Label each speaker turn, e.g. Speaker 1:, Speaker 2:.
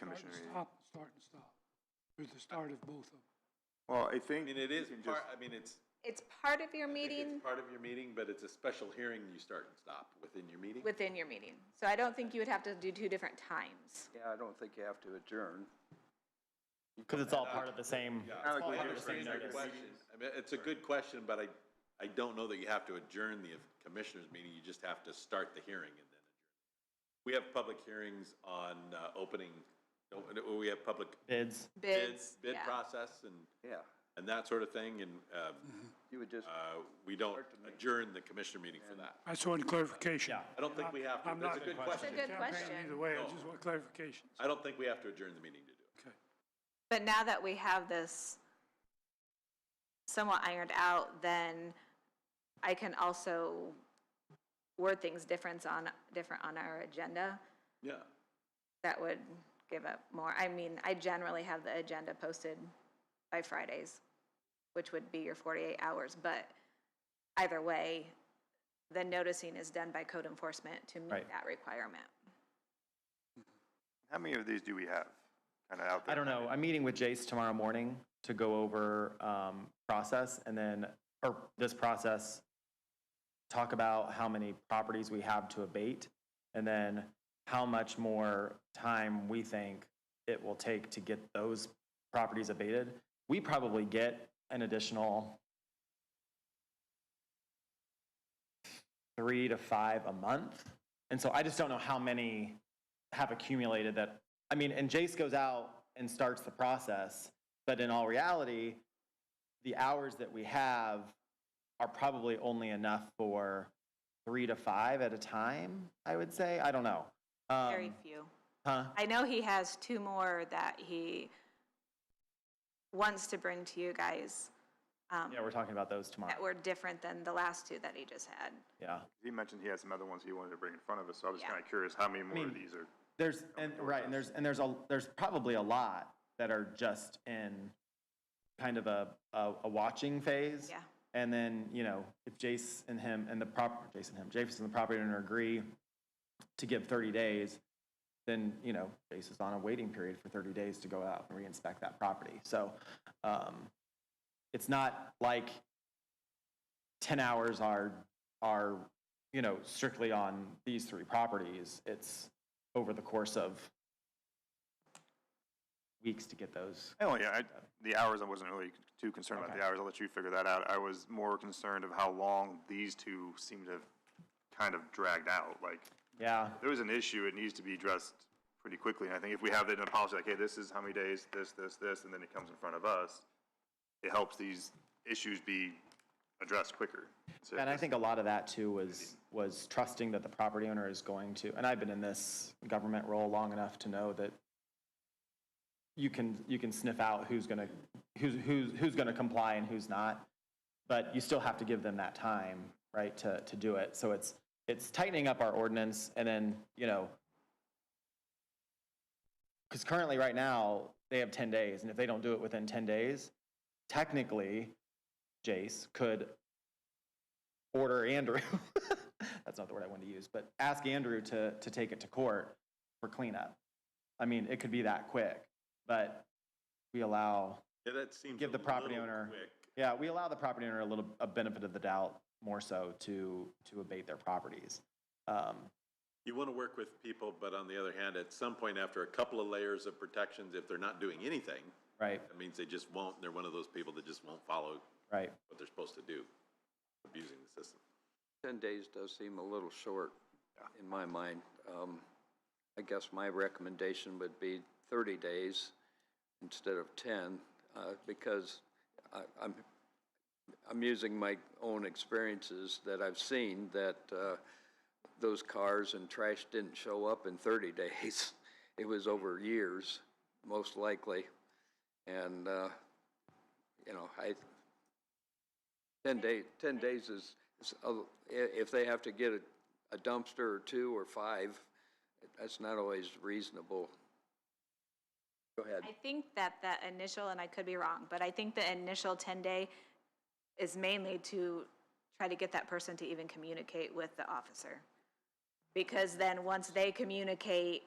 Speaker 1: and stop, start and stop. There's the start of both of them.
Speaker 2: Well, I think.
Speaker 3: I mean, it is
Speaker 2: you can
Speaker 3: part,
Speaker 2: just-
Speaker 3: I mean, it's.
Speaker 4: It's part of your
Speaker 3: I think
Speaker 4: meeting
Speaker 3: It's part of your meeting, but it's a special hearing you start and stop within your meeting.
Speaker 4: within your meeting. So I don't think you would have to do two different times.
Speaker 5: Yeah, I don't think you have to adjourn.
Speaker 6: Because it's all part of the same, it's all
Speaker 2: Alec, we
Speaker 6: part of the same
Speaker 3: It's a good
Speaker 6: notice.
Speaker 3: question. I mean, it's a good question, but I, I don't know that you have to adjourn the commissioners' meeting, you just have to start the hearing and then adjourn. We have public hearings on uh, opening, uh, we have public
Speaker 6: Bids.
Speaker 3: bids,
Speaker 4: Bids,
Speaker 3: bid
Speaker 4: yeah.
Speaker 3: process and,
Speaker 5: Yeah,
Speaker 3: and that sort of thing, and uh,
Speaker 5: you would just,
Speaker 3: uh, we don't adjourn the commissioner meeting for that.
Speaker 1: I just wanted clarification.
Speaker 6: Yeah.
Speaker 3: I don't think we have to,
Speaker 1: I'm
Speaker 3: that's a
Speaker 1: not-
Speaker 3: good
Speaker 4: It's a
Speaker 3: question.
Speaker 4: good
Speaker 1: Campaign Either
Speaker 4: question.
Speaker 1: way, I just want clarification.
Speaker 3: I don't think we have to adjourn the meeting to do it.
Speaker 1: Okay.
Speaker 4: But now that we have this somewhat ironed out, then I can also word things different on, different on our agenda.
Speaker 3: Yeah.
Speaker 4: That would give up more. I mean, I generally have the agenda posted by Fridays, which would be your 48 hours, but either way, the noticing is done by code enforcement to meet
Speaker 6: Right.
Speaker 4: that requirement.
Speaker 2: How many of these do we have? Kind of out there.
Speaker 6: I don't know. I'm meeting with Jace tomorrow morning to go over um, process and then, or this process, talk about how many properties we have to abate and then how much more time we think it will take to get those properties abated. We probably get an additional three to five a month. And so I just don't know how many have accumulated that I mean, and Jace goes out and starts the process, but in all reality, the hours that we have are probably only enough for three to five at a time, I would say. I don't know. Um,
Speaker 4: Very few.
Speaker 6: Huh?
Speaker 4: I know he has two more that he wants to bring to you guys um,
Speaker 6: Yeah, we're talking about those tomorrow.
Speaker 4: that were different than the last two that he just had.
Speaker 6: Yeah.
Speaker 2: He mentioned he had some other ones he wanted to bring in front of us, so I was
Speaker 4: Yeah.
Speaker 2: kind of curious how many more of
Speaker 6: mean-
Speaker 2: these are.
Speaker 6: There's, and, right, and there's, and there's a, there's probably a lot that are just in kind of a, a, a watching phase.
Speaker 4: Yeah.
Speaker 6: And then, you know, if Jace and him and the prop, Jason him, Jason and the property owner agree to give thirty days, then, you know, Jace is on a waiting period for thirty days to go out and re-inspect that property. So, um, it's not like ten hours are, are, you know, strictly on these three properties. It's over the course of weeks to get those.
Speaker 2: Oh, yeah, I, the hours, I wasn't really too concerned about
Speaker 6: Okay.
Speaker 2: the hours. I'll let you figure that out. I was more concerned of how long these two seem to have kind of dragged out. Like,
Speaker 6: Yeah.
Speaker 2: if there was an issue, it needs to be addressed pretty quickly. And I think if we have that in a policy, like, hey, this is how many days, this, this, this, and then it comes in front of us, it helps these issues be addressed quicker. So
Speaker 6: And I
Speaker 2: this-
Speaker 6: think a lot of that too was, was trusting that the property owner is going to, and I've been in this government role long enough to know that you can, you can sniff out who's gonna, who's, who's, who's gonna comply and who's not. But you still have to give them that time, right, to, to do it. So it's, it's tightening up our ordinance and then, you know, because currently, right now, they have ten days, and if they don't do it within ten days, technically, Jace could order Andrew. That's not the word I wanted to use, but ask Andrew to, to take it to court for cleanup. I mean, it could be that quick, but we allow,
Speaker 3: Yeah, that seems.
Speaker 6: Give
Speaker 3: a
Speaker 6: the property
Speaker 3: little
Speaker 6: owner-
Speaker 3: quick.
Speaker 6: yeah, we allow the property owner a little, a benefit of the doubt more so to, to abate their properties. Um,
Speaker 3: You want to work with people, but on the other hand, at some point after a couple of layers of protections, if they're not doing anything,
Speaker 6: right,
Speaker 3: that means they just won't, they're one of those people that just won't follow
Speaker 6: right.
Speaker 3: what they're supposed to do, abusing the system.
Speaker 5: 10 days does seem a little short in my mind. Um, I guess my recommendation would be 30 days instead of 10, uh, because I- I'm, I'm using my own experiences that I've seen, that uh, those cars and trash didn't show up in 30 days. It was over years, most likely. And, uh, you know, I, 10 days, 10 days is, is a- i- if they have to get a- a dumpster or two or five, that's not always reasonable. Go ahead.
Speaker 4: I think that that initial, and I could be wrong, but I think the initial 10-day is mainly to try to get that person to even communicate with the officer. Because then, once they communicate